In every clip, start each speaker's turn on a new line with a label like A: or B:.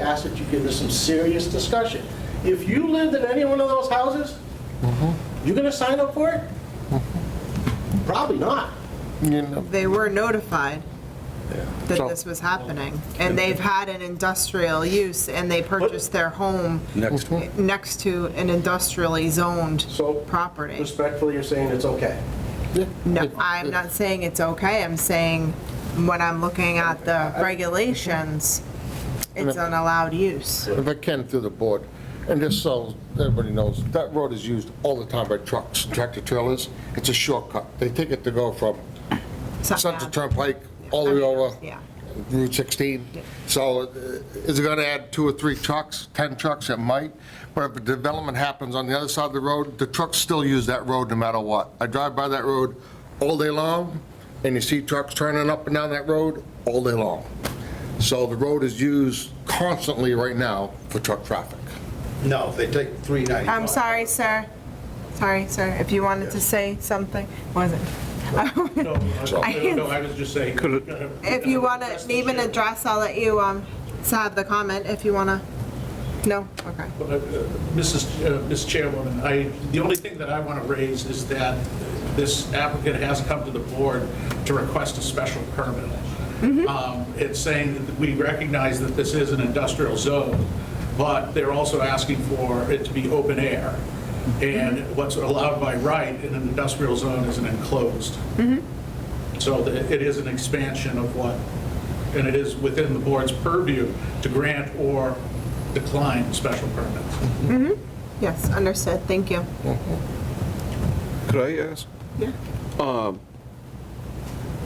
A: ask that you give this some serious discussion. If you lived in any one of those houses,
B: Mm-hmm.
A: you gonna sign up for it? Probably not.
C: You know,
D: They were notified
C: So-
D: that this was happening, and they've had an industrial use, and they purchased their home
E: Next,
D: next to an industrially zoned
A: So-
D: property.
A: Respectfully, you're saying it's okay.
D: No, I'm not saying it's okay, I'm saying when I'm looking at the uh, regulations, it's an allowed use.
C: If I can, through the board, and just so everybody knows, that road is used all the time by trucks, tractor trailers. It's a shortcut. They take it to go from Central Turnpike all the way over
D: Yeah.
C: Route 16. So uh, is it going to add two or three trucks, 10 trucks? It might. But if a development happens on the other side of the road, the trucks still use that road no matter what. I drive by that road all day long, and you see trucks turning up and down that road all day long. So the road is used constantly right now for truck traffic.
F: No, they take 395.
D: I'm sorry, sir. Sorry, sir, if you wanted to say something, was it?
G: No, uh, I- no, no, I was just saying.
D: If you want to even address, I'll let you um, have the comment if you want to. No? Okay.
G: uh, Mrs. Ch- uh, Ms. Chairwoman, I, the only thing that I want to raise is that this applicant has come to the board to request a special permit. Um, It's saying that we recognize that this is an industrial zone, but they're also asking for it to be open air. And what's allowed by right in an industrial zone is an enclosed. So that it is an expansion of what, and it is within the board's purview to grant or decline special permits.
D: Yes, understood. Thank you.
E: could I ask?
D: Yeah.
E: Um,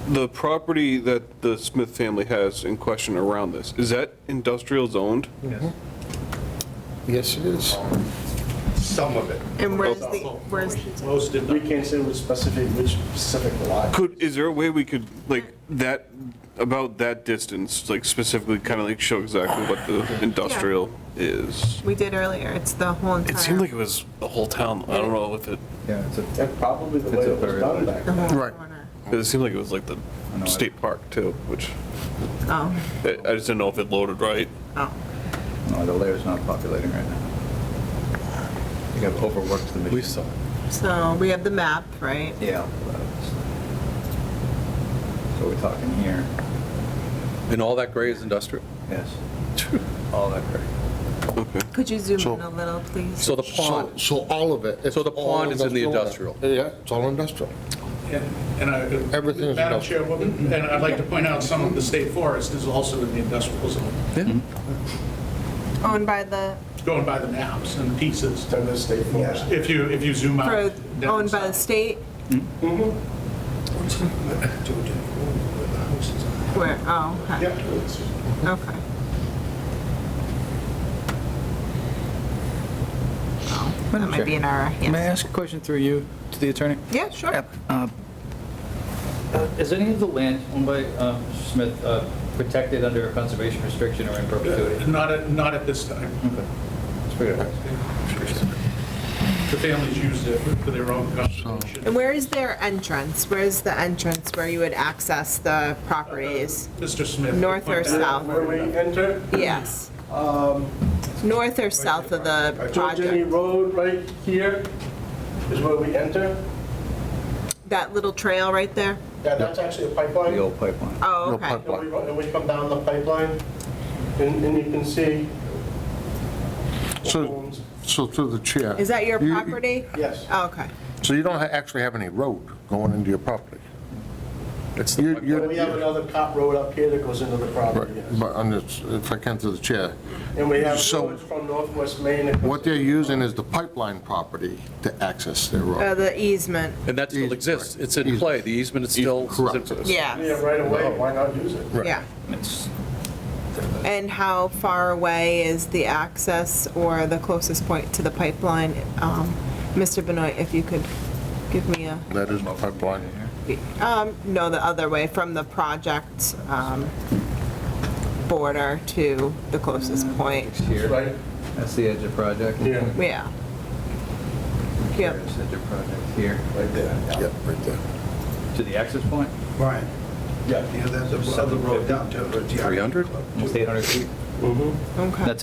E: The property that the Smith family has in question around this, is that industrial zoned?
C: Yes, it is.
F: Some of it.
D: And where's the, where's,
G: Most did
A: We
G: not.
A: can't say with specific, which specific lot.
E: Could, is there a way we could, like, that, about that distance, like specifically kind of like show exactly what the industrial is?
D: we did earlier, it's the whole entire.
E: It seemed like it was the whole town, I don't know if it,
B: Yeah, it's a,
A: That's probably the way
B: It's a
A: it was
B: very
A: done
B: large-
A: back
D: the
A: then.
D: whole
C: Right.
D: corner.
E: it seemed like it was like the state park too, which,
D: Oh,
E: I I just didn't know if it loaded right.
D: oh.
B: no, the layer's not populating right now. You got overworked the machine. We saw.
D: So we have the map, right?
B: Yeah. but it's- So we're talking here,
H: And all that gray is industrial.
B: yes. All that great.
E: Okay.
D: Could you zoom
C: So-
D: in a little, please?
H: So the
C: So,
H: pond,
C: so all of it. it's
H: So the
C: all
H: pond is in the
C: Yeah, it's all industrial.
G: And- And I,
C: Everything is
G: Madam
C: industrial.
G: Chairwoman, and I'd like to point out some of the state forest is also in the industrial zone,
D: Owned by the,
G: going by the maps and pieces.
A: Then the state forest.
G: If you, if you zoom out.
D: for-
G: down
D: owned by the
G: south.
D: state? Where, oh, okay,
A: Yep, it's-
D: okay. Oh, That might be an error,
B: May I
D: yes.
B: ask a question through you to the attorney?
D: Yeah, sure.
B: Uh,
I: Uh, Is any of the land owned by uh, Smith uh, protected under a conservation restriction or in perpetuity?
G: Uh, Not at, not at this time.
B: let's figure it out.
G: The families used it for their own conservation.
D: And where is their entrance? Where's the entrance where you would access the properties?
G: Mr. Smith.
D: North or
G: pointed out
D: south?
A: Where we enter,
D: Yes. North or south of the
A: George Um, Jenny
D: project?
A: Road right here is where we enter.
D: That little trail right there?
A: Yeah, that's actually a
B: The
A: pipeline.
B: old pipeline.
D: Oh,
C: No
D: okay.
C: pipe-
A: And we, ru- and we come down the pipeline, and, and you can see the
C: So,
A: homes.
C: so through the chair.
D: Is that your
C: you-
D: property? Oh,
A: Yes.
D: Okay.
C: So you don't ha- actually have any road going into your property?
H: it's
C: You-
H: the
C: you-
A: And we have another cop road up here that goes into the
C: Right,
A: property, yes.
C: But on this, if I can through the chair,
A: And we have
C: So-
A: roads from northwest Maine. that goes-
C: what they're using is the pipeline property to access their
D: Uh,
C: road.
D: The easement,
H: and that still exists. It's in play. The easement is still.
C: Correct.
A: Yeah,
D: yes,
A: right away, why not use it?
C: Right.
D: yeah.
B: It's
D: And how far away is the access or the closest point to the pipeline? Um, Mr. Benoit, if you could give me a,
C: That is my pipeline.
D: um, no, the other way, from the project um, border to the closest point,
B: here,
A: Right,
B: that's the edge of project.
A: yeah,
D: yeah.
B: Here's
D: Yep,
B: the edge of project here,
A: right there.
C: Yeah, right there.
B: to the access point,
F: Brian,
A: Yeah.
F: you know, that's the other road down to.
H: 300?
B: almost 800 feet.
D: That's it.